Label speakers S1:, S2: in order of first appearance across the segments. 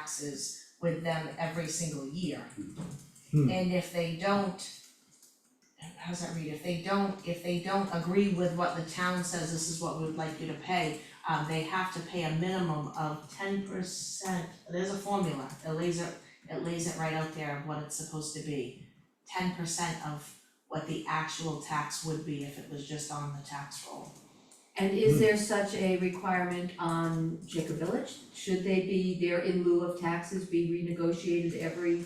S1: taxes with them every single year.
S2: Hmm.
S1: And if they don't, how's that read, if they don't, if they don't agree with what the town says, this is what we would like you to pay, um, they have to pay a minimum of ten percent, there's a formula, it lays it, it lays it right out there of what it's supposed to be. Ten percent of what the actual tax would be if it was just on the tax roll.
S3: And
S2: Hmm.
S3: is there such a requirement on Jacob Village? Should they be there in lieu of taxes be renegotiated every,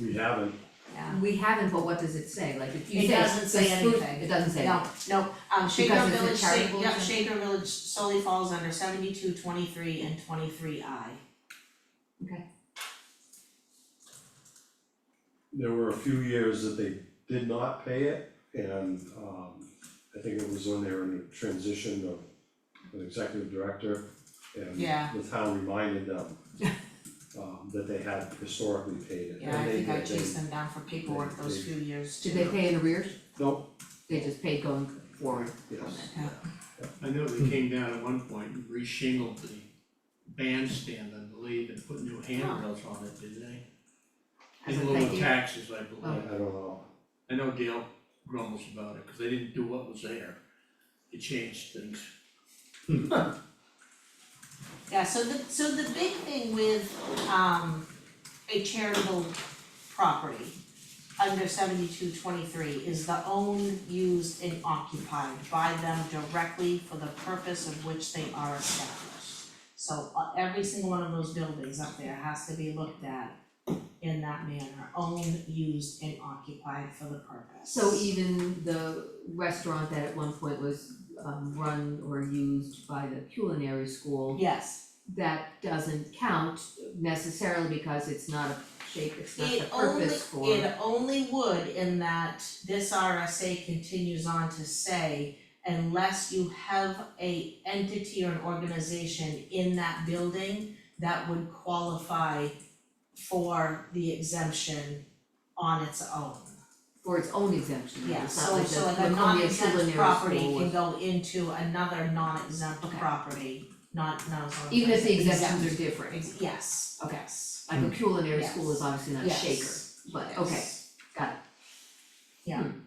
S2: We haven't,
S1: Yeah.
S3: we haven't, but what does it say? Like if you
S1: It
S3: say.
S1: doesn't say
S3: the food-
S1: anything.
S3: It doesn't say.
S1: No, no, um Shaker
S3: Because it's a
S1: Village, Sha-
S3: charitable
S1: yeah,
S3: thing?
S1: Shaker Village solely falls under seventy-two, twenty-three and twenty-three I.
S2: there were a few years that they did not pay it, and um, I think it was when they were in the transition of an executive director, and
S1: Yeah.
S2: the town reminded them um, that they had historically paid it,
S1: Yeah, I
S2: and they
S1: think I
S2: did,
S1: chased
S2: they,
S1: them down for paperwork
S2: they-
S1: those
S2: they-
S1: few years too.
S3: Did they pay in arrears?
S2: nope,
S3: They just paid going forward.
S2: yes,
S1: Yeah.
S4: I know they came down at one point and reshingled the bandstand, I believe, and put new handrails on it, didn't they?
S3: As a Oh.
S4: In lieu
S3: thank
S4: of
S3: you.
S4: taxes, I
S2: I I
S4: believe.
S2: don't know,
S4: I know Dale grumbles about it, cause they didn't do what was there. They changed things.
S1: Yeah, so the, so the big thing with um a charitable property under seventy-two twenty-three is the owned, used and occupied by them directly for the purpose of which they are established. So uh, every single one of those buildings up there has to be looked at in that manner, owned, used and occupied for the purpose.
S3: So e- even the restaurant that at one point was um run or used by the culinary school,
S1: Yes,
S3: that doesn't count necessarily because it's not a shape, it's not the
S1: it only,
S3: purpose for.
S1: it only would in that this RSA continues on to say unless you have a entity or an organization in that building that would qualify for the exemption on its own.
S3: for its own exemption,
S1: Yeah,
S3: it's not
S1: so
S3: like
S1: so
S3: the
S1: like a
S3: Laconia
S1: non-exempt
S3: culinary
S1: property
S3: school
S1: can
S3: was-
S1: go into another non-exempt
S3: Okay.
S1: property, not not as
S3: Even if the Mm-hmm. exemptions
S1: exempt.
S3: are different,
S1: Ex- Yes,
S3: Okay.
S1: yes,
S3: like a culinary
S1: Yes.
S3: school is obviously not a
S1: yes.
S3: shaker, but okay,
S1: yes.
S3: got it.
S1: Yeah.
S3: Hmm.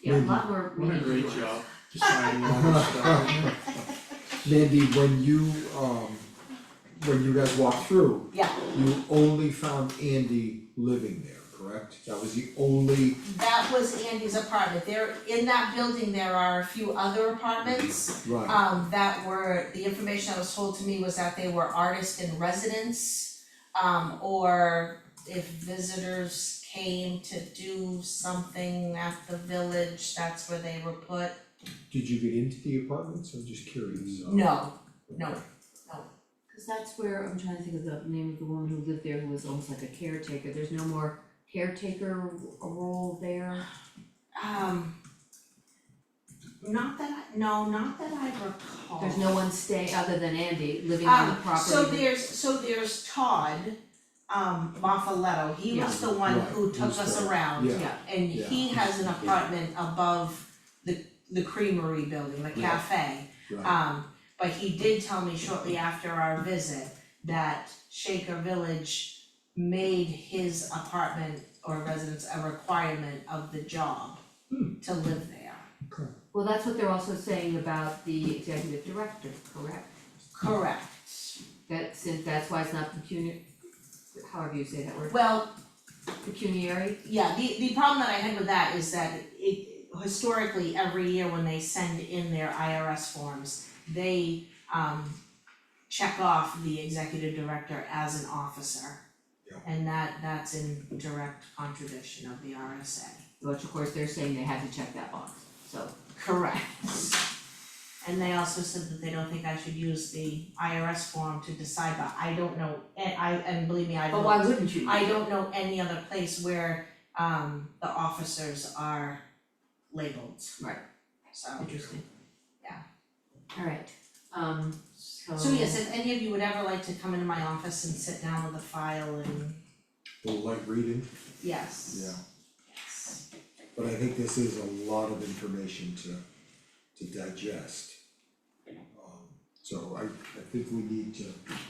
S3: Yeah, a lot more
S4: What a
S3: reading
S4: great
S3: to us.
S4: job deciding all this stuff.
S5: Mandy, when you um, when you guys walked through,
S1: Yeah.
S5: you only found Andy living there, correct? That was the only,
S1: That was Andy's apartment, there, in that building, there are a few other apartments,
S5: right,
S1: um, that were, the information that was told to me was that they were artist in residence. Um, or if visitors came to do something at the village, that's where they were put.
S5: did you get into the apartments, I'm just curious.
S1: No, no,
S3: Cause that's where, I'm trying to think of the name of the woman who lived there who was almost like a caretaker, there's no more caretaker role there.
S1: um. Not that, I no, not that I recall.
S3: There's no one staying other than Andy living on the
S1: Um,
S3: property.
S1: So there's, so there's Todd, um, Maffaletto, he was the one
S5: Right,
S1: who
S5: he
S1: took
S5: was
S1: us
S5: the-
S1: around.
S5: Yeah,
S3: Yeah,
S1: And
S5: Yeah.
S1: he has an apartment above the, the creamery building, the
S5: Yeah.
S1: cafe.
S5: right,
S1: Um, but he did tell me shortly after our visit that Shaker Village made his apartment or residence a requirement of the job
S5: Hmm.
S1: to live there.
S3: well, that's what they're also saying about the executive director, correct?
S1: Correct.
S3: That since that's why it's not pecuniary, however you say that word,
S1: Well,
S3: pecuniary,
S1: Yeah, the the problem that I had with that is that it historically, every year when they send in their IRS forms, they um check off the executive director as an officer.
S5: Yeah.
S1: And that that's in direct contradiction of the RSA.
S3: which of course they're saying they had to check that box, so.
S1: Correct. And they also said that they don't think I should use the IRS form to decide, but I don't know, and I and believe me, I don't.
S3: But why wouldn't you?
S1: I don't know any other place where um the officers are labeled.
S3: Right.
S1: So.
S3: Interesting.
S1: Yeah.
S3: Alright, um, so.
S1: So yes, if any of you would ever like to come into my office and sit down with a file and
S5: well, light reading,
S1: yes.
S5: yeah,
S1: Yes.
S5: but I think this is a lot of information to to digest. Um, So I, I think we need to